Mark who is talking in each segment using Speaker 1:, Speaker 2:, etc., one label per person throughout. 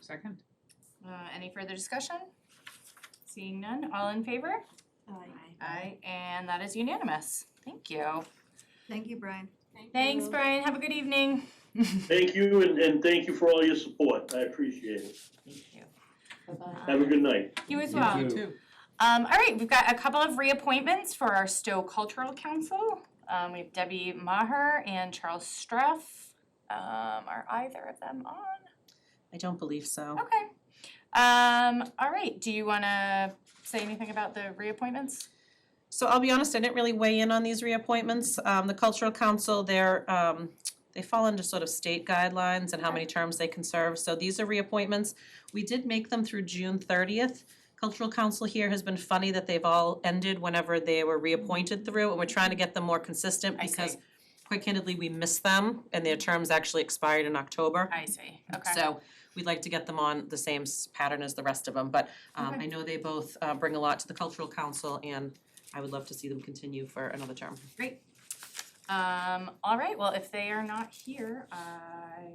Speaker 1: Second?
Speaker 2: Uh, any further discussion? Seeing none, all in favor?
Speaker 3: Aye.
Speaker 2: Aye. And that is unanimous. Thank you.
Speaker 3: Thank you, Brian.
Speaker 2: Thanks, Brian. Have a good evening.
Speaker 4: Thank you, and, and thank you for all your support. I appreciate it.
Speaker 2: Thank you.
Speaker 4: Have a good night.
Speaker 2: Um, You as
Speaker 5: You
Speaker 2: well.
Speaker 5: too.
Speaker 1: Two.
Speaker 2: Um, all right, we've got a couple of reappointments for our Stowe Cultural Council. Um, we have Debbie Maher and Charles Streff. Um, are either of them on?
Speaker 6: I don't believe so.
Speaker 2: Okay. Um, all right, do you wanna say anything about the reappointments?
Speaker 6: So I'll be honest, I didn't really weigh in on these reappointments. Um, the Cultural Council, they're, um, they fall under sort of state guidelines and how many terms they can serve, so these are reappointments. We did make them through June thirtieth. Cultural Council here has been funny that they've all ended whenever they were reappointed through, and we're trying to get them more consistent
Speaker 2: I see.
Speaker 6: because quite candidly, we missed them and their terms actually expired in October.
Speaker 2: I see, okay.
Speaker 6: So we'd like to get them on the same s- pattern as the rest of them, but um
Speaker 2: Okay.
Speaker 6: I know they both uh bring a lot to the cultural council and I would love to see them continue for another term.
Speaker 2: Um, all right, well, if they are not here, I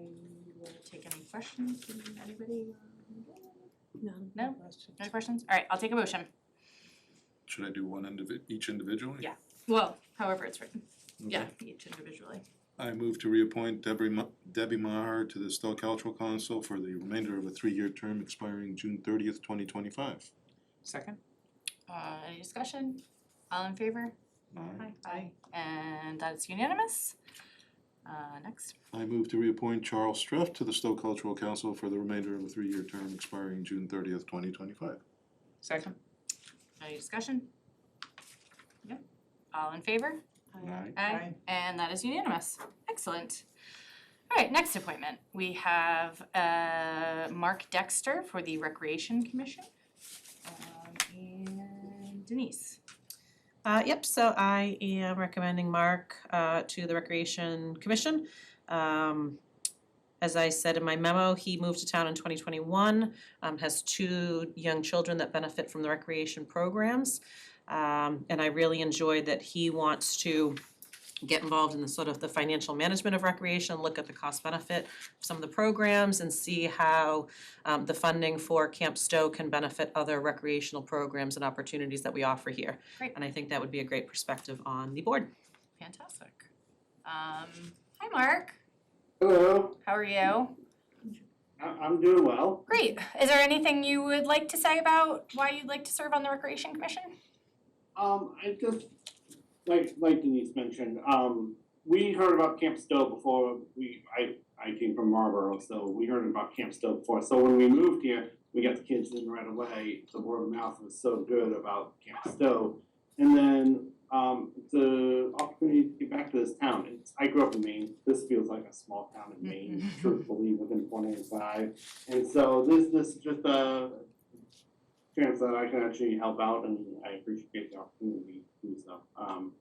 Speaker 2: will take any questions from anybody. No? No questions? All right, I'll take a motion.
Speaker 7: Should I do one indivi- each individually?
Speaker 2: Yeah. Well, however it's written.
Speaker 7: Okay.
Speaker 2: Yeah, each individually.
Speaker 7: I move to reappoint Debbie Ma- Debbie Maher to the Stowe Cultural Council for the remainder of a three-year term expiring June thirtieth, twenty twenty-five.
Speaker 1: Second?
Speaker 2: Uh, any discussion? All in favor?
Speaker 7: Aye.
Speaker 2: Aye. And that is unanimous. Uh, next,
Speaker 7: I move to reappoint Charles Streff to the Stowe Cultural Council for the remainder of a three-year term expiring June thirtieth, twenty twenty-five.
Speaker 1: Second?
Speaker 2: any discussion? Yep, all in favor?
Speaker 7: Aye.
Speaker 2: Aye. And that is unanimous. Excellent. All right, next appointment. We have uh, Mark Dexter for the Recreation Commission. Um, And Denise.
Speaker 6: Uh yep, so I am recommending Mark uh to the Recreation Commission. Um as I said in my memo, he moved to town in twenty twenty one, um has two young children that benefit from the recreation programs. Um and I really enjoyed that he wants to get involved in the sort of the financial management of recreation, look at the cost benefit of some of the programs and see how um the funding for Camp Stowe can benefit other recreational programs and opportunities that we offer here. And I think that would be a great perspective on the board.
Speaker 2: Fantastic. Um, Hi, Mark.
Speaker 8: Hello,
Speaker 2: How are you?
Speaker 8: I- I'm doing well.
Speaker 2: Great. Is there anything you would like to say about why you'd like to serve on the Recreation Commission?
Speaker 8: Um, I just, like, like Denise mentioned, um, we heard about Camp Stowe before we, I, I came from Marlboro, so we heard about Camp Stowe before. So when we moved here, we got the kids in right away. The word of mouth was so good about Camp Stowe. And then, um, the opportunity to get back to this town. It's, I grew up in Maine. This feels like a small town in Maine, truthfully, within point eight five. And so this, this is just a chance that I can actually help out, and I appreciate the opportunity to do so. Um,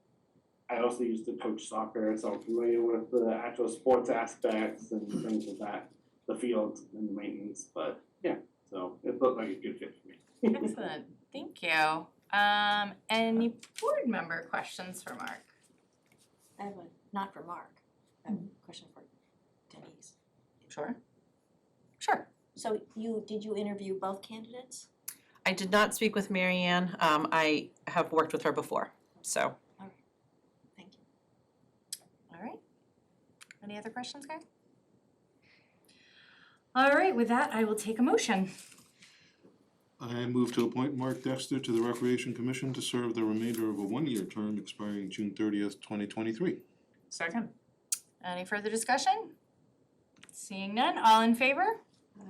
Speaker 8: I also used to coach soccer, so I'm familiar with the actual sports aspects and things of that, the field and the maintenance, but yeah, so it looked like a good fit for me.
Speaker 2: Excellent. Thank you. Um, Any board member questions for Mark?
Speaker 3: I have a, not for Mark, I have a question for Denise.
Speaker 2: Sure. Sure.
Speaker 3: So you, did you interview both candidates?
Speaker 6: I did not speak with Mary Ann. Um, I have worked with her before, so.
Speaker 3: Thank you.
Speaker 2: All right. Any other questions, guys? All right, with that, I will take a motion.
Speaker 7: I move to appoint Mark Dexter to the Recreation Commission to serve the remainder of a one-year term expiring June thirtieth, twenty twenty-three.
Speaker 1: Second?
Speaker 2: Any further discussion? Seeing none, all in favor?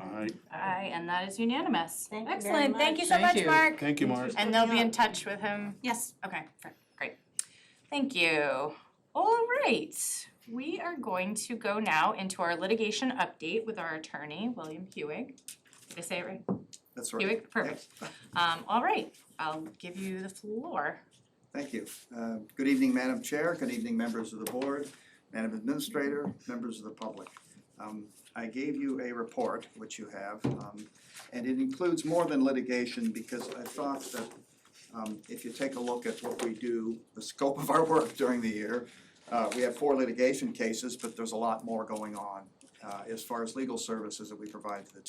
Speaker 7: Aye.
Speaker 2: Aye, and that is unanimous.
Speaker 3: Thank you very
Speaker 2: Excellent, thank you so
Speaker 5: much.
Speaker 2: much,
Speaker 5: Thank you.
Speaker 2: Mark.
Speaker 7: Thank you, Mark.
Speaker 2: And they'll be in touch with him.
Speaker 6: Yes.
Speaker 2: Okay, fair- great. Thank you. All right, we are going to go now into our litigation update with our attorney, William Hewig. Did I say it right?
Speaker 9: That's right.
Speaker 2: Hewig, perfect. Um, all right, I'll give you the floor.
Speaker 9: Thank you. Uh, Good evening, Madam Chair, good evening, members of the board, Madam Administrator, members of the public. Um, I gave you a report, which you have, um, and it includes more than litigation because I thought that um, if you take a look at what we do, the scope of our work during the year, uh, we have four litigation cases, but there's a lot more going on uh, as far as legal services that we provide to the